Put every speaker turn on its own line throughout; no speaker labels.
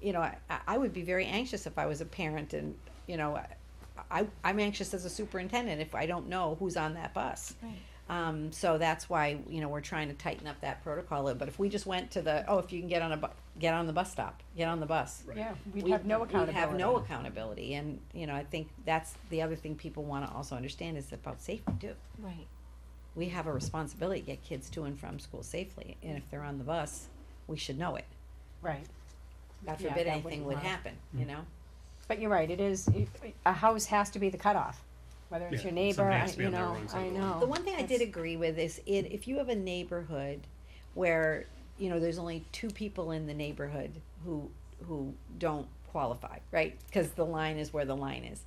you know, I, I would be very anxious if I was a parent and, you know, I- I, I'm anxious as a superintendent if I don't know who's on that bus.
Right.
Um, so that's why, you know, we're trying to tighten up that protocol a little, but if we just went to the, oh, if you can get on a bu- get on the bus stop, get on the bus.
Yeah, we'd
we-
have no accountability.
We'd have no accountability, and, you know, I think that's the other thing people wanna also understand is about safety too.
Right.
We have a responsibility to get kids to and from school safely, and if they're on the bus, we should know it.
Right.
God
Yeah,
forbid
that
anything
wouldn't
would
work.
happen, you know?
But you're right, it is, it- a house has to be the cutoff, whether it's
Yeah,
your neighbor,
somebody
I-
has to be
you
on the
know,
wrong side
I
of the
know.
line.
The one thing I did
Oh, That's-
agree with is it, if you have a neighborhood where, you know, there's only two people in the neighborhood who, who don't qualify, right? Cause the line is where the line is.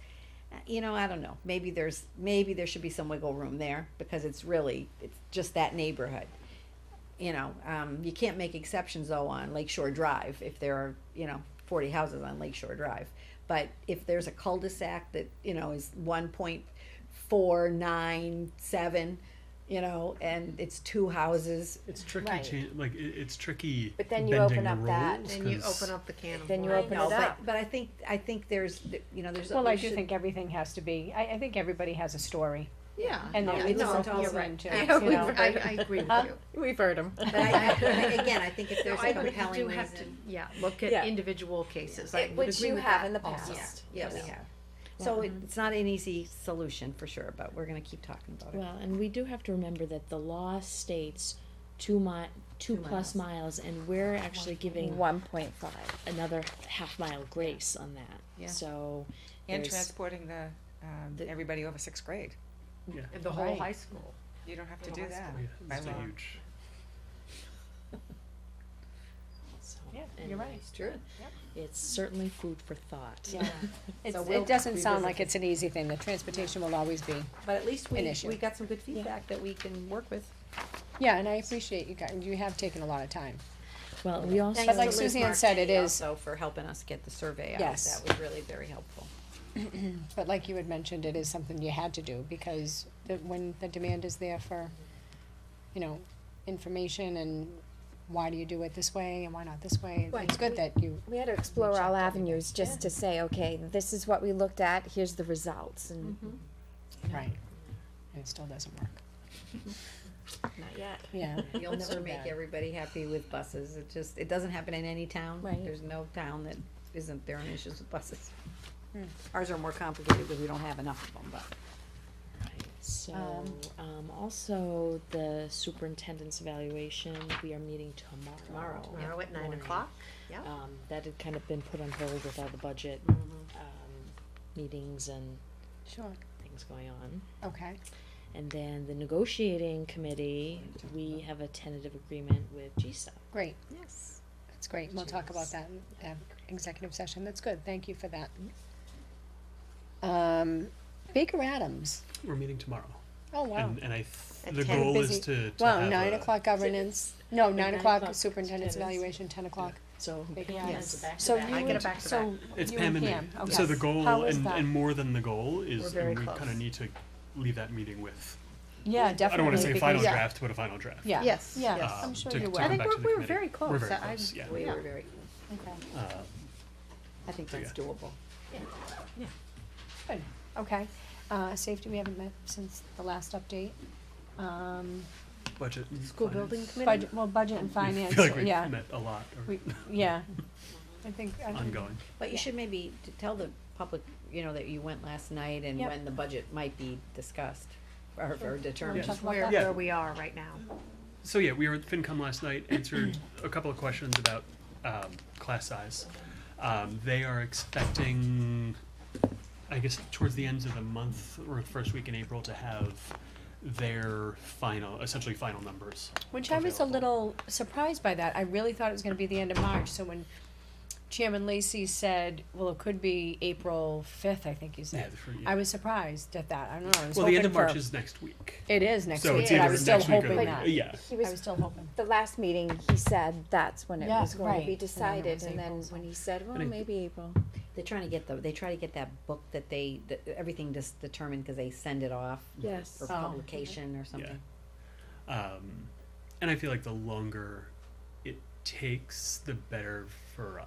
Uh, You know, I don't know, maybe there's, maybe there should be some wiggle room there, because it's really, it's just that neighborhood. You know, um, you can't make exceptions though on Lake Shore Drive if there are, you know, forty houses on Lake Shore Drive. But if there's a cul-de-sac that, you know, is one point four, nine, seven, you know, and it's two houses.
It's tricky,
Right.
chan- like it, it's tricky.
But then you
bending
open
the
up that,
rules,
Then you
'cause-
open up the can of
Then you
worms.
open
No,
it
but-
up.
But I think, I think there's, you know, there's.
Well, I
we
do
should-
think everything has to be, I, I think everybody has a story,
Yeah.
and
Yeah,
that
I
we
it's
know.
listen
all-
to
you're
listen
right.
to,
Yeah,
you
we've-
know.
I, I agree with
Huh?
you.
We've heard them.
But I, I- again, I think if
No,
there's
I
a
agree. You
compelling
do have to,
reason.
yeah, look at
Yeah.
individual cases.
Yeah,
I would
which
agree
you
with
have
that
in the
also.
Yeah,
past.
yeah, we
Yeah.
have. So it- it's not an easy solution for sure, but we're gonna keep talking about it.
Well, and we do have to remember that the law states two mi- two,
Two
plus miles. and we're actually giving
One point five.
another half mile grace on that.
Yeah.
So
And
there's-
transporting the, um,
The-
everybody over sixth grade.
And the whole
Right.
high school.
You don't have to
Little
do
high
that.
Yeah,
by
it's a
law.
huge.
so
Yeah, you're
anyway,
right.
It's true.
It's certainly food for thought.
Yeah. It's,
So we'll
it doesn't sound
revisit
like it's an easy thing, the transportation will always be,
But at least we,
An issue.
we got some good feedback that we can work with.
yeah, and I appreciate you guys, you have taken a lot of time.
Well, we also
But like Suzanne said, it is-
So for helping us get the survey out,
Yes.
that was really very helpful.
But like you had mentioned, it is something you had to do because the, when the demand is there for, you know, information and why do you do it this way and why not this way?
Right.
It's good that you,
We had to explore all
Checked
avenues just to say, okay, this is what we looked at, here's the results, and
Mm-hmm.
right, and it still doesn't work,
not yet.
yeah.
You'll
it's
never
too
make
bad.
everybody happy with buses, it just, it doesn't happen in any town.
Right.
There's no town that isn't there on issues with buses. Ours are more complicated because we don't have enough of them, but.
So,
Um,
um, also the superintendent's evaluation, we are meeting tomorrow.
Tomorrow at nine
morning.
o'clock, yeah.
Um, that had kind of been put on hold with all the budget, um, meetings and
Sure,
things going on.
okay,
And then the negotiating committee, we have a tentative agreement with GSA.
great,
Yes.
that's great, we'll talk about that in, uh, executive session, that's good, thank you for that. Um, Baker Adams,
We're meeting tomorrow,
oh wow.
and and I th-
At
the
10.
goal
Busy.
is to to
Wow,
have
nine
a-
o'clock governance, no, nine
nine
o'clock
o'clock
superintendent's
superintendent's-
evaluation, ten o'clock
So
Big
Pam
yes.
has a back to
So
back.
you
I get
and-
a back to
so
It's
you
Pam and
Pam,
me.
okay.
So the
Yes.
goal,
How is
and,
that?
and more than the goal,
We're
is
very
and we
close.
kind of need to leave that meeting with.
Yeah, definitely.
I don't want to say
because-
final
Yeah.
draft, but a final draft.
Yeah.
Yes,
Yeah.
Um,
yes.
I'm sure
to,
you
to
will.
come
I think
back to
we're-
the
we're
committee.
very close.
We're very
I-
close. yeah.
We
Yeah.
were very,
Okay.
Uh,
I think
So,
that's
yeah.
doable.
Good. Okay. Uh, safety, we haven't met since the last update. Um,
budget. and
School
finance.
building committee?
budget, well, budget and finance,
We feel like we
yeah.
met a lot. Or
We, yeah. I think. I think-
ongoing.
But you
Yeah.
should maybe t- tell the public, you know, that you went last night and
Yep.
when the budget might be discussed or, or determined.
talk about
Where,
that?
Yeah.
where we are right now.
So yeah, we were at FinCom last night, answered a couple of questions about um, class size. Um, they are expecting, I guess, towards the end of the month or first week in April to have their final, essentially final numbers.
Which I was a
available.
little surprised by that. I really thought it was gonna be the end of March, so when Chairman Lacy said, well, it could be April fifth, I think you
Yeah,
said.
for, yeah.
I was surprised at that. I don't know. I was
well, the end
hoping
of March
for-
is next week.
It is next
so
week,
it's
but
either
I was still
next week
hoping
or
that.
yeah.
He
I was
was,
still hoping.
the last meeting, he said that's when it
Yeah,
was going
right.
to be
And then it
decided,
was
and then
April.
when he said, well,
And I-
maybe April.
They're trying to get the, they try to get that book that they, that everything just determined because they send it off
Yes.
for
Oh.
publication or something.
Um, and I feel like the longer it takes, the better for